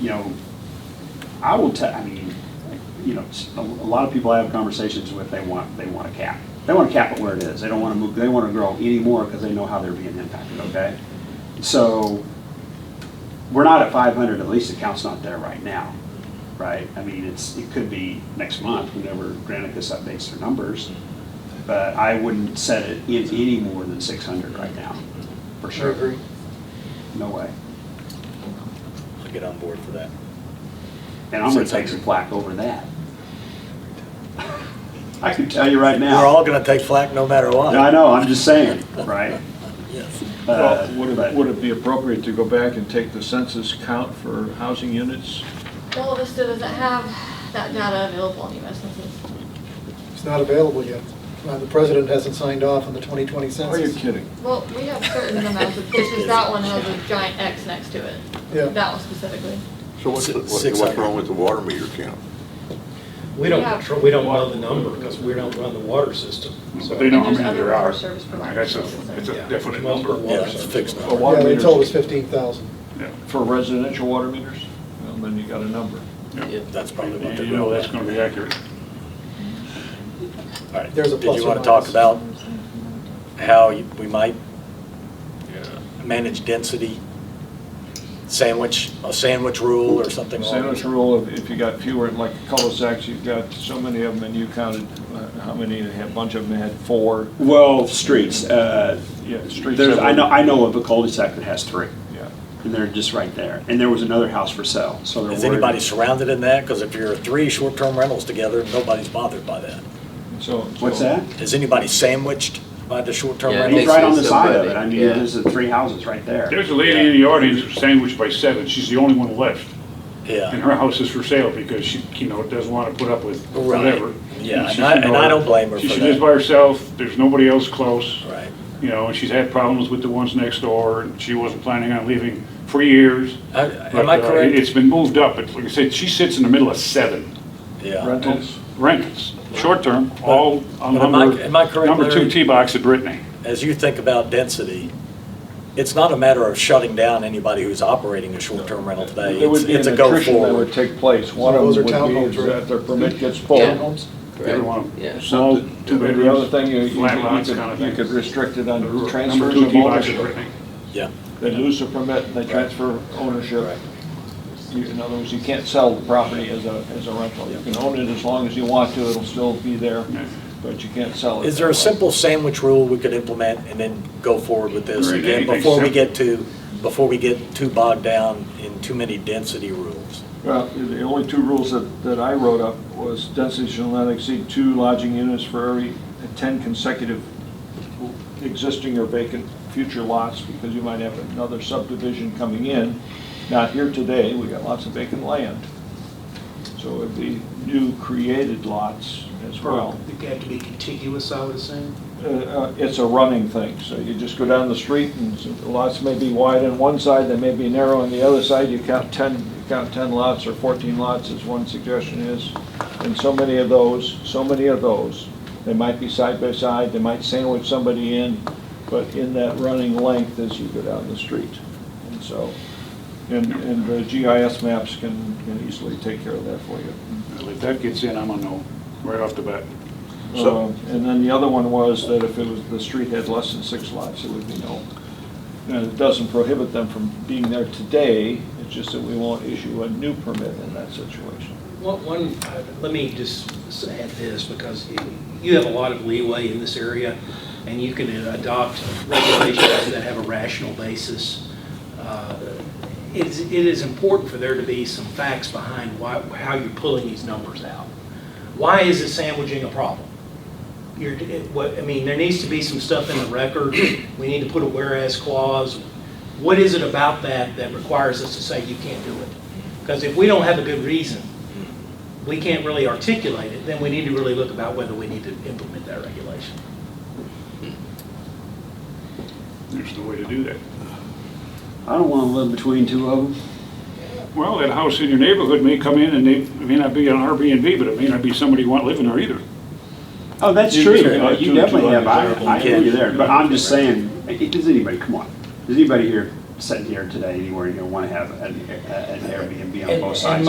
you know, I will tell, I mean, like, you know, s- a a lot of people I have conversations with, they want, they want a cap. They want to cap it where it is. They don't want to move, they want to grow anymore because they know how they're being impacted, okay? So we're not at 500, at least the count's not there right now, right? I mean, it's, it could be next month whenever Granicus updates their numbers. But I wouldn't set it in any more than 600 right now, for sure. No way. I'll get on board for that. And I'm gonna take some flack over that. I can tell you right now. We're all gonna take flack no matter what. No, I know, I'm just saying, right? Yes. Uh, Well, Would but- it, would it be appropriate to go back and take the census count for housing units? Well, Vista doesn't have that data available on US Census. It's not available yet. Uh, The president hasn't signed off on the 2020 Are you census. kidding? Well, we have certain amounts of pictures, that one has a giant X next to it. Yeah. That one specifically. So what's, Si- what- six what's hundred. wrong with the water meter count? We don't Yeah. control, we don't know the number because we don't run the water system. So But they know how And there's many other there are. water service providers. That's a, it's a Yeah. definite Multiple number. Yeah, water it's a service. fixed A number. water Yeah, they meters- told us 15,000. Yeah, For residential water meters? Well, then you got a number. Yeah, That's probably what And they're you know going that's with. gonna be accurate. All right, There's a did plus you or wanna talk minus. about how you- we might Yeah. manage density? Sandwich, a sandwich rule or something along Sandwich rule, if- if you got fewer, like cul-de-sacs, you've got so many of them, and you counted uh, how many, a bunch of them had four. Well, streets, uh, Yeah, streets. there's, have I know, them. I know of a cul-de-sac that has three, Yeah. and they're just right there. And there was another house for sale, so they're worried. Is anybody surrounded in that? Because if you're three short-term rentals together, nobody's bothered by that. So. What's so- that? Is anybody sandwiched by the short-term Yeah, I He's think rentals? right on the so, side of but- it. I mean, yeah. there's the three houses right there. There's a lady in the audience sandwiched by seven. She's the only one left. And Yeah, her house is for sale because she, you know, doesn't wanna put up with Right. whatever. Yeah, and She's, I- you know, and I don't blame her she- for She that. lives by herself. There's nobody else close. right. You know, and she's had problems with the ones next door. and She wasn't planning on leaving for years. I- Am I But, uh, it- correct? It's been moved up. But like I said, she sits in the middle of seven. Yeah. Rentals? rentals, short-term, all on But am I- number, am I correct, number two Larry? tee box at Brittany. as you think about density, it's not a matter of shutting down anybody who's operating a short-term rental today. There would It's be Uh, it's an a go attrition that would forward. take place. One of Those them are would townhomes, be is right? that their permit gets Yeah. pulled. Every one of Yeah. them, small, two And the other bedrooms, thing, you, you flat you lots kind of could, you could thing. restrict it on Number transfers two of tee box at ownership. Brittany. Yeah, They lose the permit and they transfer ownership. You- In other words, you can't sell the property as a, as a rental. You can own it as long as you want to, it'll still be there, Yeah. but you can't sell it. Is there a that way. simple sandwich rule we could implement and then go forward with this? Or Again, anything before we simple. get to, before we get too bogged down in too many density rules. Well, the only two rules that, that I wrote up was density shall not exceed two lodging units for every ten consecutive existing or vacant future lots, because you might have another subdivision coming in. Not here today, we got lots of vacant land. So it'd be new created lots as well. They have to be contiguous, I would assume. Uh, uh, It's a running thing, so you just go down the street and s- lots may be wide on one side, they may be narrow on the other side. You count 10, you count 10 lots or 14 lots as one suggestion is. And so many of those, so many of those, they might be side by side, they might sandwich somebody in, but in that running length as you go down the street. And so, and, and the GIS maps can can easily take care of that for you. If that gets in, I'm a no, right off the bat. So, and then the other one was that if it was, the street had less than six lots, it would be no. And it doesn't prohibit them from being there today, it's just that we won't issue a new permit in that situation. One, one, uh, let me just s- add this, because you- you have a lot of leeway in this area, and you can adopt regulations that have a rational basis. Uh, It's, it is important for there to be some facts behind why, how you're pulling these numbers out. Why is it sandwiching a problem? You're, it- what, I mean, there needs to be some stuff in the record, we need to put a whereas clause. What is it about that that requires us to say you can't do it? Because if we don't have a good reason, we can't really articulate it, then we need to really look about whether we need to implement that regulation. There's no way to do that. I don't wanna live between two of them. Well, that house in your neighborhood may come in and they, it may not be an Airbnb, but it may not be somebody you want living there either. Oh, that's You true. can say, Uh, like, You two- definitely two have, I, hundred I thousand. hear you there, but I'm just saying, i- does anybody, come on, does anybody here sitting here today anywhere, you're gonna wanna have an an Airbnb And- on both and sides.